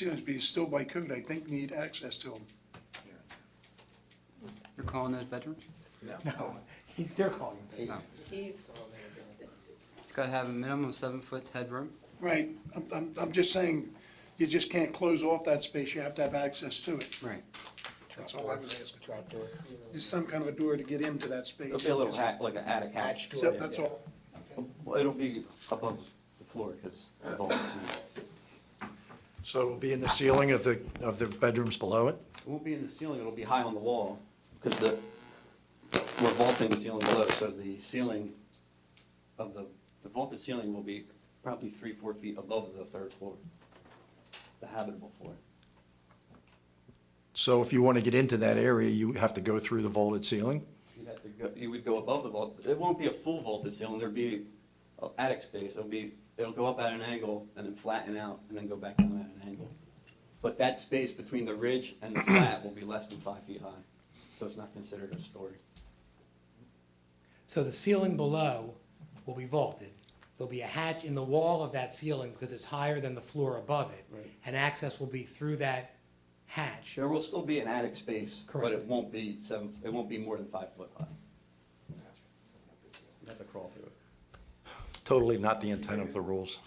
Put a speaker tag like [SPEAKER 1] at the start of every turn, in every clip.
[SPEAKER 1] students, but you still by code, I think, need access to them.
[SPEAKER 2] You're calling those veterans?
[SPEAKER 3] No, he's, they're calling him.
[SPEAKER 2] No.
[SPEAKER 4] He's calling it.
[SPEAKER 2] It's gotta have a minimum of seven foot headroom.
[SPEAKER 1] Right, I'm, I'm, I'm just saying, you just can't close off that space, you have to have access to it.
[SPEAKER 2] Right.
[SPEAKER 1] That's all I was asking.
[SPEAKER 3] Trapdoor.
[SPEAKER 1] There's some kind of a door to get into that space.
[SPEAKER 5] It'll be a little hat, like an attic hatch.
[SPEAKER 3] Hatch
[SPEAKER 1] So
[SPEAKER 3] door.
[SPEAKER 1] that's all.
[SPEAKER 5] Well, it'll be above the floor, because the vault's-
[SPEAKER 6] So it'll be in the ceiling of the, of the bedrooms below it?
[SPEAKER 5] It won't be in the ceiling, it'll be high on the wall, because the, we're vaulting the ceiling below, so the ceiling of the, the vaulted ceiling will be probably three, four feet above the third floor, the habitable floor.
[SPEAKER 6] So if you want to get into that area, you have to go through the vaulted ceiling?
[SPEAKER 5] You'd have to go, you would go above the vault, it won't be a full vaulted ceiling, there'd be a attic space, it'll be, it'll go up at an angle and then flatten out and then go back down at an angle. But that space between the ridge and the flat will be less than five feet high, so it's not considered a story.
[SPEAKER 3] So the ceiling below will be vaulted. There'll be a hatch in the wall of that ceiling because it's higher than the floor above it.
[SPEAKER 5] Right.
[SPEAKER 3] And access will be through that hatch.
[SPEAKER 5] There will still be an attic space, but
[SPEAKER 3] Correct.
[SPEAKER 5] it won't be seven, it won't be more than five foot high. You have to crawl through it.
[SPEAKER 6] Totally not the intent of the rules.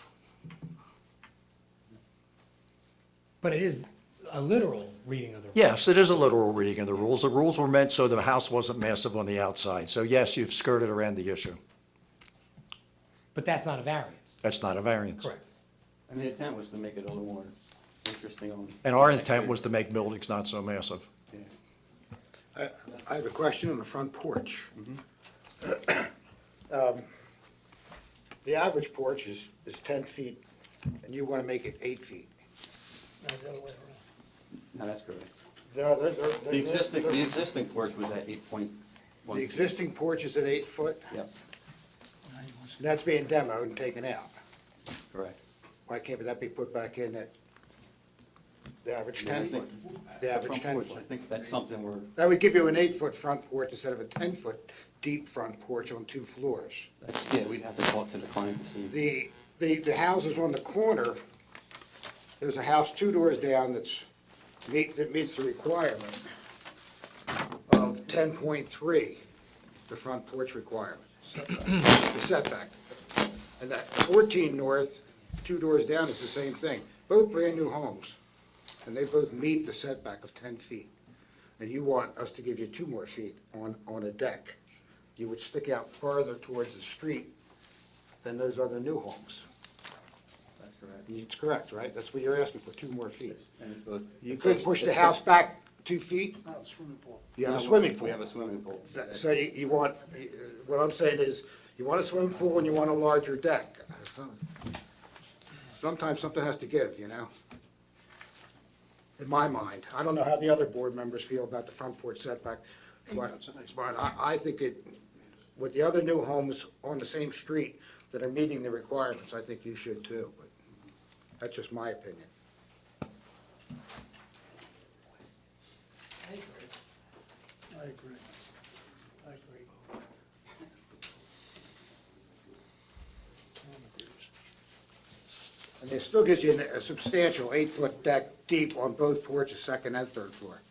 [SPEAKER 3] But it is a literal reading of the.
[SPEAKER 6] Yes, it is a literal reading of the rules. The rules were meant so the house wasn't massive on the outside. So yes, you've skirted around the issue.
[SPEAKER 3] But that's not a variance.
[SPEAKER 6] That's not a variance.
[SPEAKER 3] Correct.
[SPEAKER 5] And the intent was to make it a little more interesting on.
[SPEAKER 6] And our intent was to make buildings not so massive.
[SPEAKER 5] Yeah.
[SPEAKER 7] I I have a question on the front porch.
[SPEAKER 3] Mm-hmm.
[SPEAKER 7] Um, The average porch is, is 10 feet, and you want to make it 8 feet.
[SPEAKER 4] No, the other way around.
[SPEAKER 5] No, that's correct.
[SPEAKER 7] They're- they're- they're-
[SPEAKER 5] The
[SPEAKER 7] they're-
[SPEAKER 5] existing,
[SPEAKER 7] they're-
[SPEAKER 5] the existing porch was at eight point one.
[SPEAKER 7] The existing porch is at 8 foot,
[SPEAKER 5] Yep,
[SPEAKER 7] and that's being demoed and taken out.
[SPEAKER 5] correct.
[SPEAKER 7] Why can't that be put back in at the average
[SPEAKER 5] Yeah, I
[SPEAKER 7] 10
[SPEAKER 5] think-
[SPEAKER 7] foot? The average
[SPEAKER 5] front
[SPEAKER 7] 10
[SPEAKER 5] porch, I
[SPEAKER 7] foot.
[SPEAKER 5] think that's something we're,
[SPEAKER 7] That would give you an 8 foot front porch instead of a 10 foot deep front porch on two floors.
[SPEAKER 5] that's- yeah, we'd have to talk to the client to see.
[SPEAKER 7] the, the, the houses on the corner, there's a house two doors down that's meet, that meets the requirement of ten point three, the front porch requirement, the setback. And that fourteen north, two doors down is the same thing, both brand-new homes, and they both meet the setback of ten feet. And you want us to give you two more feet on, on a deck. You would stick out farther towards the street than those other new homes.
[SPEAKER 5] That's correct.
[SPEAKER 7] It's correct, right? That's what you're asking for, two more feet.
[SPEAKER 5] And it's both-
[SPEAKER 7] You
[SPEAKER 5] it's
[SPEAKER 7] could
[SPEAKER 5] both-
[SPEAKER 7] push the
[SPEAKER 5] it's
[SPEAKER 7] house
[SPEAKER 5] both-
[SPEAKER 7] back two feet,
[SPEAKER 1] Oh, the swimming pool.
[SPEAKER 7] you have a
[SPEAKER 5] No,
[SPEAKER 7] swimming pool.
[SPEAKER 5] We have a swimming pool.
[SPEAKER 7] So you, you want, uh, what I'm saying is, you want a swimming pool and you want a larger deck. Some- Sometimes something has to give, you know? In my mind. I don't know how the other board members feel about the front porch setback, but, but I, I think it, with the other new homes on the same street that are meeting the requirements, I think you should too, but that's just my opinion.
[SPEAKER 4] I agree.
[SPEAKER 1] I agree. I agree. Someone agrees.
[SPEAKER 7] And it still gives you a substantial eight-foot deck deep on both porches, second and third floor.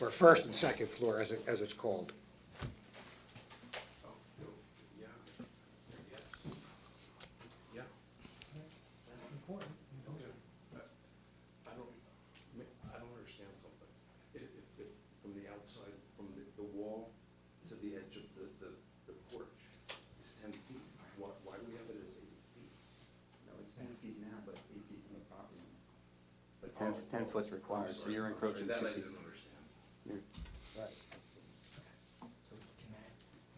[SPEAKER 7] Or first and second floor, as it, as it's called.
[SPEAKER 4] That's important.
[SPEAKER 8] I don't, I don't understand something. If, if, if, from the outside, from the, the wall to the edge of the, the, the porch is ten feet, why, why do we have it as eight feet?
[SPEAKER 5] No, it's ten feet now, but it's eight feet from the property. But ten, ten foot's required, so you're
[SPEAKER 8] I'm sorry,
[SPEAKER 5] encroaching two
[SPEAKER 8] That I
[SPEAKER 5] feet.
[SPEAKER 8] didn't understand.
[SPEAKER 5] You're-
[SPEAKER 3] So can that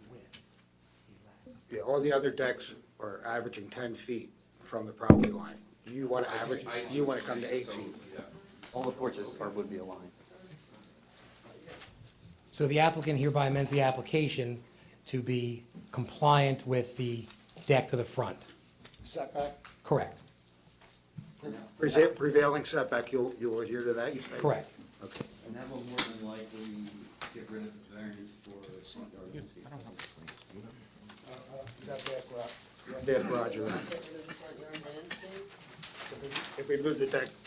[SPEAKER 3] width be less?
[SPEAKER 7] Yeah, all the other decks are averaging ten feet from the property line. You want to average,
[SPEAKER 8] I see
[SPEAKER 7] you
[SPEAKER 8] what
[SPEAKER 7] want to come
[SPEAKER 8] you're
[SPEAKER 7] to eight
[SPEAKER 8] saying,
[SPEAKER 7] feet.
[SPEAKER 8] so, Yeah.
[SPEAKER 5] All the porches are, would be aligned.
[SPEAKER 3] So the applicant hereby amends the application to be compliant with the deck to the front.
[SPEAKER 7] Setback?
[SPEAKER 3] Correct,
[SPEAKER 7] Prevailing setback, you'll, you'll adhere to that, you say?
[SPEAKER 3] correct.
[SPEAKER 7] Okay.
[SPEAKER 5] And that will more than likely get rid of the variance for front yard and seat.
[SPEAKER 7] There's Roger,
[SPEAKER 4] Get rid of the front yard landscape?
[SPEAKER 7] If we- If we moved it that